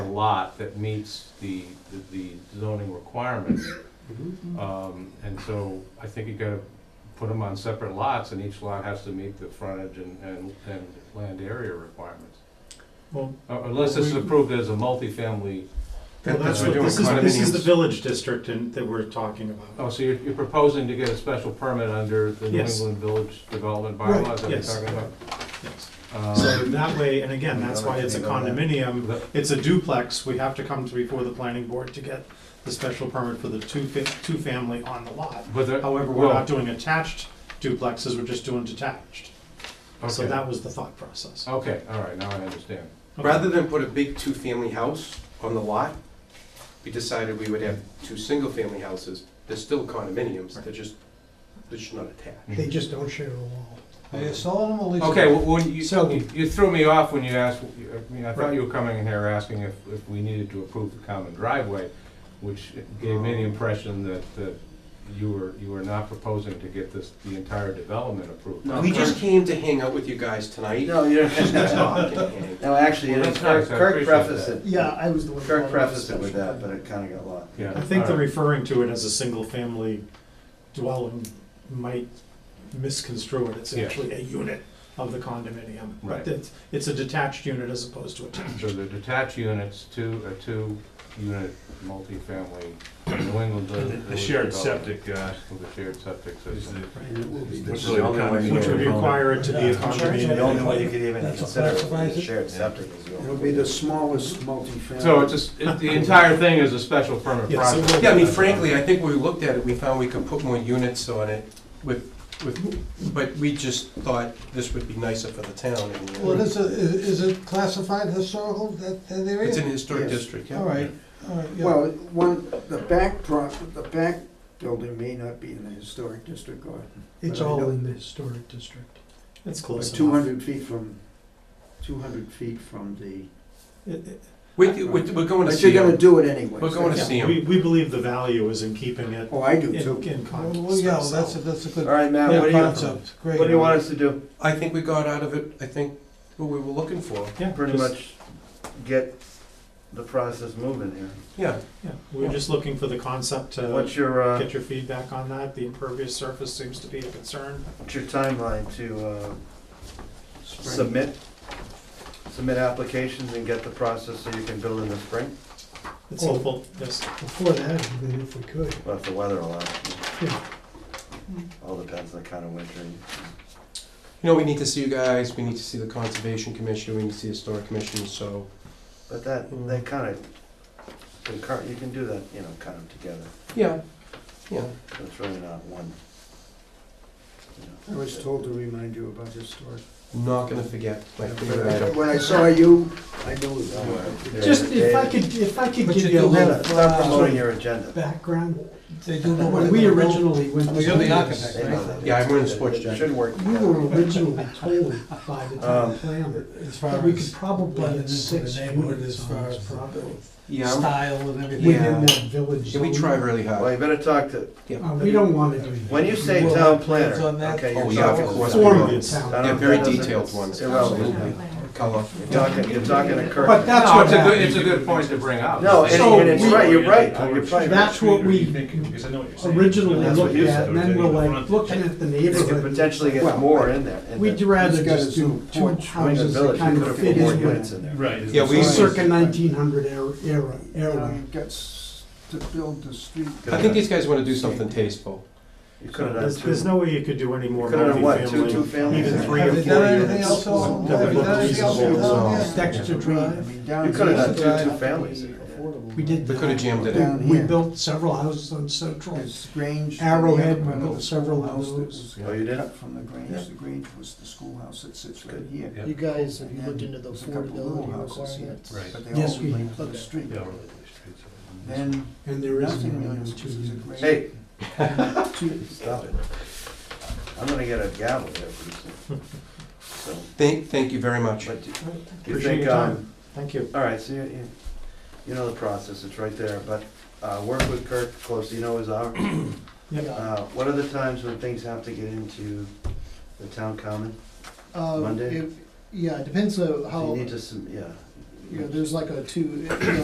lot that meets the, the- the zoning requirements. Mm-hmm. Um, and so I think you gotta put them on separate lots and each lot has to meet the frontage and, and, and land area requirements. Well, Uh, Unless it's approved as a multifamily, well, That's that's what what, we're this is, doing, this is the condominiums. village district and, that we're talking oh, about. so you're, you're proposing to get a special permit under the New Yes. England Village Development Right, bylaws that we're yes. talking about? Yes. Um, So that way, and again, that's why it's a condominium, the- it's a duplex, we have to come to before the planning board to get the special permit for the two, fa- two family on the lot. But the- However, we're well- not doing attached duplexes, we're just doing detached. So Okay. that was the thought process. Okay, all right, now I understand. Okay. Rather than put a big two-family house on the lot, we decided we would have two single-family houses. They're still condominiums, they're just, they're just not attached. They just don't share a wall. Are you selling them or leasing? Okay, well, when you, So- you- you threw me off when you asked, I mean, I thought you were coming in here asking if, if we needed to approve the common driveway, which gave me Oh. the impression that, that you were, you were not proposing to get this, the entire development approved. No. We just came to hang out with you guys tonight. No, you Just to don't. talk and hang. No, actually, Well, it that's is- nice, I Kirk Kirk appreciate prefaced that. it. Yeah, I was the one. Kirk prefaced it with that, but it kinda got lost. Yeah. I think all the right. referring to it as a single-family dwelling might misconstrue it. It's Yeah. actually a unit of the condominium. but Right. It's, it's a detached unit as opposed to attached. So the detached units, two, a two-unit multifamily, New England. Village The shared Development septic uh, With a shared septic is the, system. which really the only way condominium you Which would Yeah. require it to be a Yeah. The condominium. only way you could even That's consider it classifies was a it. shared septic. is the only It'll way. be the smallest multifamily. So it's just, it- the entire thing is a special permit Yeah, so process. we'll- Yeah, I mean, frankly, I think when we looked at it, we found we could put more units on it with, with, but we just thought this would be nicer for the town. and, uh, Well, is it, is it classified historical, that, that area? It's in a historic Yes. district, yeah. All right, all right, yeah. Well, one, the back pro, the back building may not be in the historic district or. It's all in the historic district. It's close enough. Two hundred feet from, two hundred feet from the, It- it- We, we- we're going to but see you're gonna them. do it anyway. We're going to yeah, see We, them. we believe the value is in keeping it Oh, I do in, too. in Well, con- well, yeah, well, that's, a itself. that's a All good right, Matt, what do you, concept, great. what do you want us to do? I think we got out of it, I think, what we were looking for. Yeah, Pretty just- much get the process moving here. Yeah, Yeah, we're just looking for the concept to What's your, uh, get your feedback on that. The impervious surface seems to be a concern. what's your timeline to, uh, submit, submit applications and get the process so you can build in the spring? It's hopeful, yes. Before that, I mean, if we could, Well, if the weather allows. Yeah. All depends on kind of winter. you know, we need to see you guys, we need to see the Conservation Commission, we need to see the Historic Commission, so, But that, Mm. that kind of, concur, you can do that, you know, kind of together. yeah, yeah. It's really not one. you I know. was told to remind you about historic. I'm not gonna forget, like, the other item. When I saw you, I knew Don't worry. that. Just if I could, if I could But give you you a don't have little it. It's not promoting your agenda. background, they don't know When what. we originally went. Well, you're the architect, They know that. Yeah, I'm wearing a sports It jacket. Should work. We were originally told by the town Um, planner As that we could probably letting have into the six neighborhood units as on far this as property. Yeah, I'm- Style and everything. Yeah. Within that village. yeah, we try really Well, hard. you better talk to, Yeah. Uh, we don't wanna do that. when you say We'll town have plans planner, on that. okay, Oh, you're yeah, of talking. course. form I of don't- town. that Yeah, very doesn't- detailed ones. it's Irrelevant. Color. You're talking, you're talking to Kirk. But that's what It's a good, happened. it's a good point to bring up. No, and, So and it's we- right, you're right, I would- you're probably right. That's what we Because I know what you're saying. originally That's what looked you at, said, and then okay, we're the like, front- looking at the You could neighborhood. potentially get Well, more in there. in We'd the- rather He's got just his do own two point. in the houses that village, you kind could've of put fit more in units in with. there. Right. Yeah, we- it. Right. Circa nineteen hundred era, era, era. Gets to build the street. Could've I think done- these guys wanna do something tasteful. You could've done There's, two. there's no way you could do any more You could've done what, two- two multifamily, families? even three Have or they four done anything units. else on- that would have they done look anything else reasonable. on as this? well. Dexter Drive, You could've done two, two families. we did. They could've jammed it in. We built several houses on Central, There's Grange. and the Arrowhead, other we built house several that houses. was Oh, you did? Cut from the Grange, Yeah. the Grange was the schoolhouse that sits right Good. here. Yeah. You guys, have you looked into those affordability requirements? Right. But they Yes, all we relate have. to the street. Yeah. Then And there is nothing one really on was a two. Grange. Hey, Two- stop it. I'm gonna get a gavel there pretty soon. So, Thank, thank you very much. but do you Appreciate think, your um, time. Thank you. all right, so you, you, you know the process, it's right there, but, uh, work with Kirk closely, you know his hour. Yeah. Uh, what are the times when things have to get into the town common? Monday? Um, Yeah, it depends on You need to, sub- yeah. like a two,